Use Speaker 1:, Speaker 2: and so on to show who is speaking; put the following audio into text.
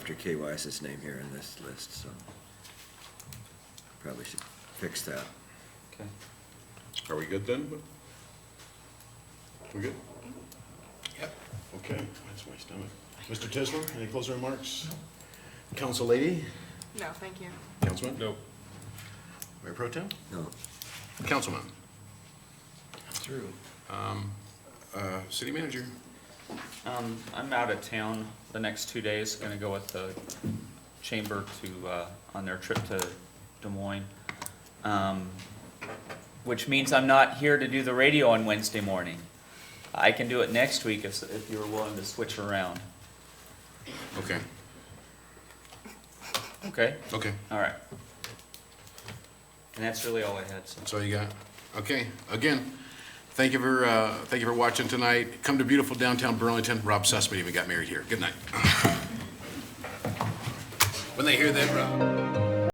Speaker 1: Dr. K. Weiss's name here in this list, so probably should fix that.
Speaker 2: Okay.
Speaker 3: Are we good then? We good?
Speaker 4: Yep.
Speaker 3: Okay, that's my stomach.
Speaker 4: Mr. Tisland, any closing remarks? Council lady,
Speaker 5: No, thank you.
Speaker 4: councilman,
Speaker 3: No.
Speaker 4: Mayor Pro Tem,
Speaker 1: No,
Speaker 3: Councilman,
Speaker 4: through.
Speaker 3: uh, city manager.
Speaker 2: Um, I'm out of town the next two days, gonna go with the chamber to, uh, on their trip to Des Moines. Um, which means I'm not here to do the radio on Wednesday morning. I can do it next week if, if you're willing to switch around.
Speaker 3: Okay,
Speaker 2: Okay,
Speaker 3: okay,
Speaker 2: all right. And that's really all I had, so.
Speaker 3: that's all you got? Okay, again, thank you for, uh, thank you for watching tonight. Come to beautiful downtown Burlington. Rob Sussman even got married here. Good night. When they hear that, Rob.